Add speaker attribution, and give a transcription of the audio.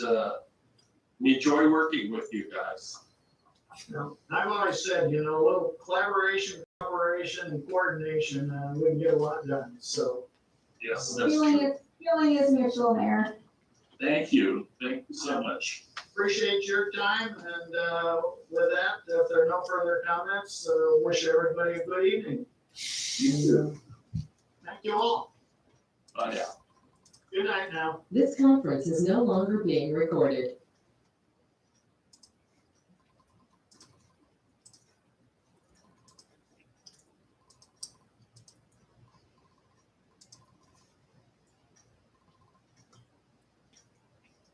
Speaker 1: uh, enjoy working with you guys.
Speaker 2: you know. And I've always said, you know, a little collaboration, cooperation, and coordination, uh, we can get a lot done, so.
Speaker 1: Yes, that's
Speaker 3: Feeling
Speaker 1: true.
Speaker 3: is, feeling is mutual, Mayor.
Speaker 1: Thank you. Thank you so much.
Speaker 2: Appreciate your time, and, uh, with that, if there are no further comments, uh, wish everybody a good evening. Thank you all.
Speaker 1: Bye now.
Speaker 2: Good night now.
Speaker 4: This conference is no longer being recorded.